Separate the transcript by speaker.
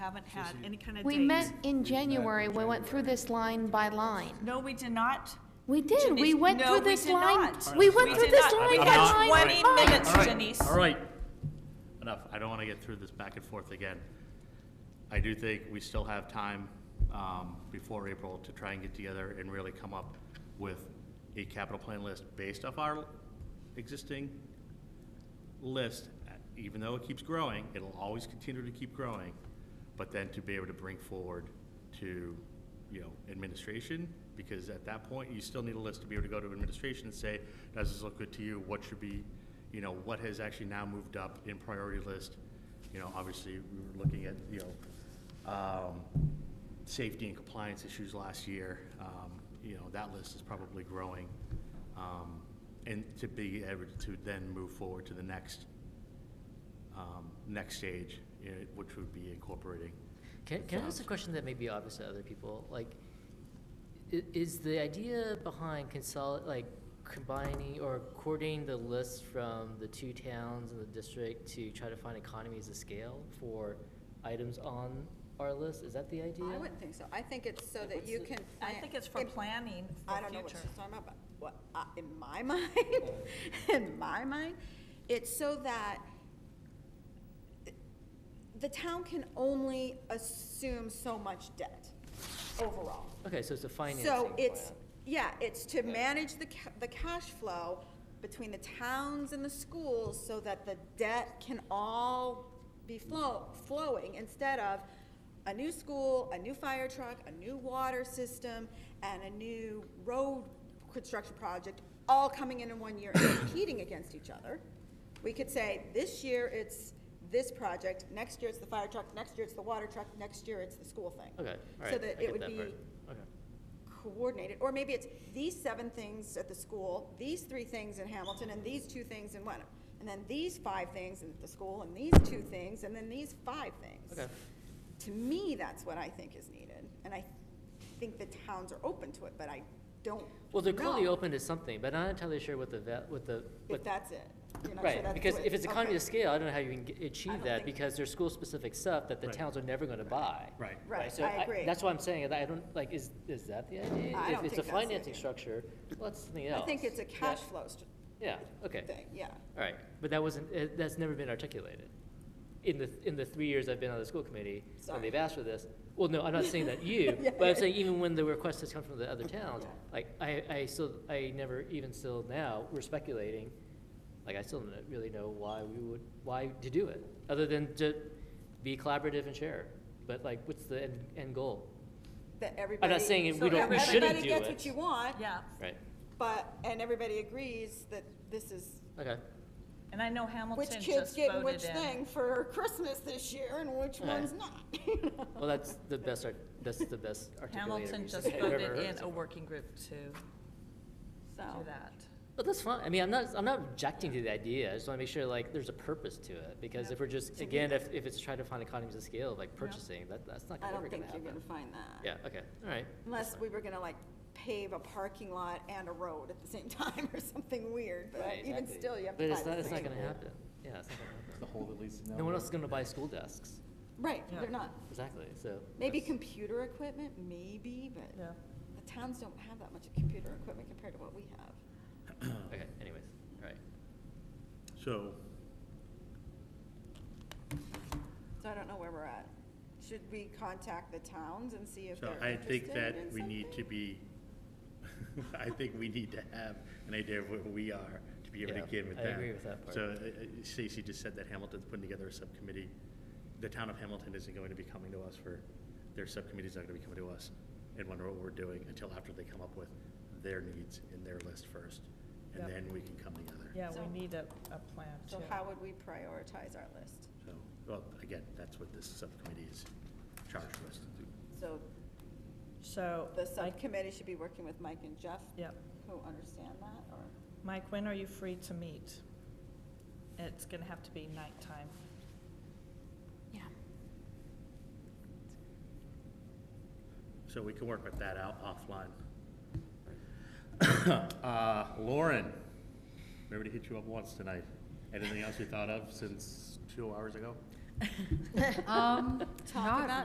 Speaker 1: haven't had any kind of dates.
Speaker 2: We met in January, we went through this line by line.
Speaker 1: No, we did not.
Speaker 2: We did, we
Speaker 1: Denise,
Speaker 2: went
Speaker 1: no,
Speaker 2: through
Speaker 1: we
Speaker 2: this
Speaker 1: did
Speaker 2: line.
Speaker 1: not.
Speaker 2: We went through
Speaker 1: did
Speaker 2: this
Speaker 1: not.
Speaker 2: line
Speaker 1: We
Speaker 2: by
Speaker 1: had
Speaker 2: line. Oh. by
Speaker 1: 20
Speaker 2: line.
Speaker 1: minutes.
Speaker 3: All right,
Speaker 1: Denise.
Speaker 3: All right, enough. I don't want to get through this back and forth again. I do think we still have time um, before April to try and get together and really come up with a capital plan list based off our existing list, even though it keeps growing, it'll always continue to keep growing, but then to be able to bring forward to, you know, administration, because at that point, you still need a list to be able to go to administration and say, does this look good to you? What should be, you know, what has actually now moved up in priority list? You know, obviously, we were looking at, you know, um, safety and compliance issues last year. Um, You know, that list is probably growing. Um, And to be able to then move forward to the next, um, next stage, you know, which would be incorporating.
Speaker 4: Can, can I ask a question that may be obvious to other people? Like, i- is the idea behind consol, like combining or coordinating the lists from the two towns in the district to try to find economies of scale for items on our list? Is that the idea?
Speaker 5: I wouldn't think so. I think it's so that you can.
Speaker 1: I
Speaker 5: plan-
Speaker 1: think it's for
Speaker 5: it-
Speaker 1: planning
Speaker 5: I
Speaker 1: for
Speaker 5: don't know what
Speaker 1: future.
Speaker 5: she's talking about, but what, I- in my mind, in my mind, it's so that the town can only assume so much debt overall.
Speaker 4: Okay, so it's a financing
Speaker 5: So it's,
Speaker 4: plan.
Speaker 5: yeah, it's to manage the, ca- the cash flow between the towns and the schools so that the debt can all be flow, flowing instead of a new school, a new fire truck, a new water system, and a new road construction project, all coming in in one year and competing against each other. We could say, this year it's this project, next year it's the fire truck, next year it's the water truck, next year it's the school thing.
Speaker 4: Okay, all right.
Speaker 5: So
Speaker 4: I
Speaker 5: that
Speaker 4: get
Speaker 5: it would
Speaker 4: part.
Speaker 5: be
Speaker 4: Okay.
Speaker 5: coordinated, or maybe it's these seven things at the school, these three things in Hamilton, and these two things in Wenham. And then these five things at the school, and these two things, and then these five things.
Speaker 4: Okay.
Speaker 5: To me, that's what I think is needed, and I think the towns are open to it, but I don't
Speaker 4: Well, they're clearly
Speaker 5: know
Speaker 4: open to something, but I'm not entirely sure what the, va- what the,
Speaker 5: If
Speaker 4: what
Speaker 5: that's it. You're not sure
Speaker 4: Right,
Speaker 5: that's
Speaker 4: because
Speaker 5: what-
Speaker 4: if it's economy
Speaker 5: okay.
Speaker 4: of scale, I don't know how you can g- achieve
Speaker 5: don't
Speaker 4: that,
Speaker 5: think-
Speaker 4: because there's school-specific stuff that the
Speaker 3: Right.
Speaker 4: towns are never gonna buy.
Speaker 3: Right.
Speaker 5: Right,
Speaker 4: so
Speaker 5: I agree.
Speaker 4: That's why I'm saying, that I don't, like, is, is that the idea?
Speaker 5: I don't
Speaker 4: If it's a
Speaker 5: think that's the
Speaker 4: financing
Speaker 5: idea.
Speaker 4: structure, well, that's something
Speaker 5: I
Speaker 4: else.
Speaker 5: think it's a
Speaker 4: Yeah,
Speaker 5: cash flow str-
Speaker 4: Yeah, okay,
Speaker 5: thing, yeah.
Speaker 4: all right, but that wasn't, uh, that's never been articulated. In the, in the three years I've been on the school committee, when
Speaker 5: Sorry.
Speaker 4: they've asked for this, well, no, I'm not saying that you,
Speaker 5: Yeah,
Speaker 4: but
Speaker 5: yeah.
Speaker 4: I'm saying even when the request has come from the other towns,
Speaker 5: Yeah.
Speaker 4: like, I, I still, I never, even still now, we're speculating, like, I still don't really know why we would, why to do it, other than to be collaborative and share. But like, what's the end, end goal?
Speaker 5: That everybody.
Speaker 4: saying it-
Speaker 5: so
Speaker 4: we don't-
Speaker 1: we shouldn't
Speaker 5: Everybody
Speaker 4: do
Speaker 5: gets
Speaker 4: it.
Speaker 5: what you want,
Speaker 1: Yeah,
Speaker 4: Right,
Speaker 5: but, and everybody agrees that this is
Speaker 4: okay,
Speaker 1: and I know
Speaker 5: which
Speaker 1: Hamilton
Speaker 5: kids
Speaker 1: just
Speaker 5: getting which
Speaker 1: voted in.
Speaker 5: thing for Christmas this year and which
Speaker 4: Right.
Speaker 5: one's not.
Speaker 4: well, that's the best, art- that's the best articulated
Speaker 1: Hamilton
Speaker 4: reason
Speaker 1: just
Speaker 4: I've ever
Speaker 1: voted
Speaker 4: heard
Speaker 1: in
Speaker 4: so
Speaker 1: a
Speaker 4: far.
Speaker 1: working group to do
Speaker 5: So,
Speaker 1: that.
Speaker 4: But that's fine. I mean, I'm not, I'm not objecting to the idea. I just want to make sure like there's a purpose to it because if we're just, again, if, if it's trying to find economies of scale, like purchasing, that, that's not
Speaker 5: I
Speaker 4: ever
Speaker 5: don't
Speaker 4: gonna
Speaker 5: think you're
Speaker 4: happen.
Speaker 5: gonna find that.
Speaker 4: Yeah, okay, all right.
Speaker 5: Unless we were gonna like pave a parking lot and a road at the same time or something weird, but
Speaker 4: Right,
Speaker 5: even
Speaker 4: exactly.
Speaker 5: still, you have
Speaker 4: But
Speaker 5: to
Speaker 4: it's
Speaker 5: find
Speaker 4: not,
Speaker 5: the
Speaker 4: it's not
Speaker 5: same.
Speaker 4: gonna happen. Yeah, it's not gonna happen.
Speaker 6: The hole that leads to
Speaker 4: No one else is gonna buy school desks.
Speaker 5: Right,
Speaker 1: Yeah.
Speaker 5: they're not.
Speaker 4: Exactly, so.
Speaker 5: Maybe
Speaker 4: that's-
Speaker 5: computer equipment, maybe, but
Speaker 1: Yeah.
Speaker 5: the towns don't have that much computer equipment compared to what we have.
Speaker 4: Okay, anyways, all right.
Speaker 3: So,
Speaker 5: So I don't know where we're at. Should we contact the towns and see if
Speaker 3: so
Speaker 5: they're
Speaker 3: I
Speaker 5: interested in
Speaker 3: think that
Speaker 5: something?
Speaker 3: we need to be, I think we need to have an idea of where we are to be able to
Speaker 4: Yeah,
Speaker 3: get with
Speaker 4: I
Speaker 3: that.
Speaker 4: agree with that part.
Speaker 3: So uh, uh, Stacy just said that Hamilton's putting together a subcommittee. The town of Hamilton isn't going to be coming to us for, their subcommittee's not going to be coming to us and wonder what we're doing until after they come up with their needs in their list first. And
Speaker 1: Yep.
Speaker 3: then we can come together.
Speaker 1: Yeah,
Speaker 5: So-
Speaker 1: we need a, a plan too.
Speaker 5: So how would we prioritize our list?
Speaker 3: So, well, again, that's what this subcommittee is charged with.
Speaker 5: So
Speaker 1: So,
Speaker 5: the
Speaker 1: I,
Speaker 5: subcommittee should be working with Mike and Jeff,
Speaker 1: yep.
Speaker 5: who understand that, or?
Speaker 1: Mike, when are you free to meet? It's gonna have to be nighttime.
Speaker 2: Yeah.
Speaker 3: So we can work with that out offline. Uh, Lauren, remember to hit you up once tonight. Anything else you thought of since two hours ago?
Speaker 7: Um, not
Speaker 1: Talk
Speaker 2: Uh,
Speaker 1: about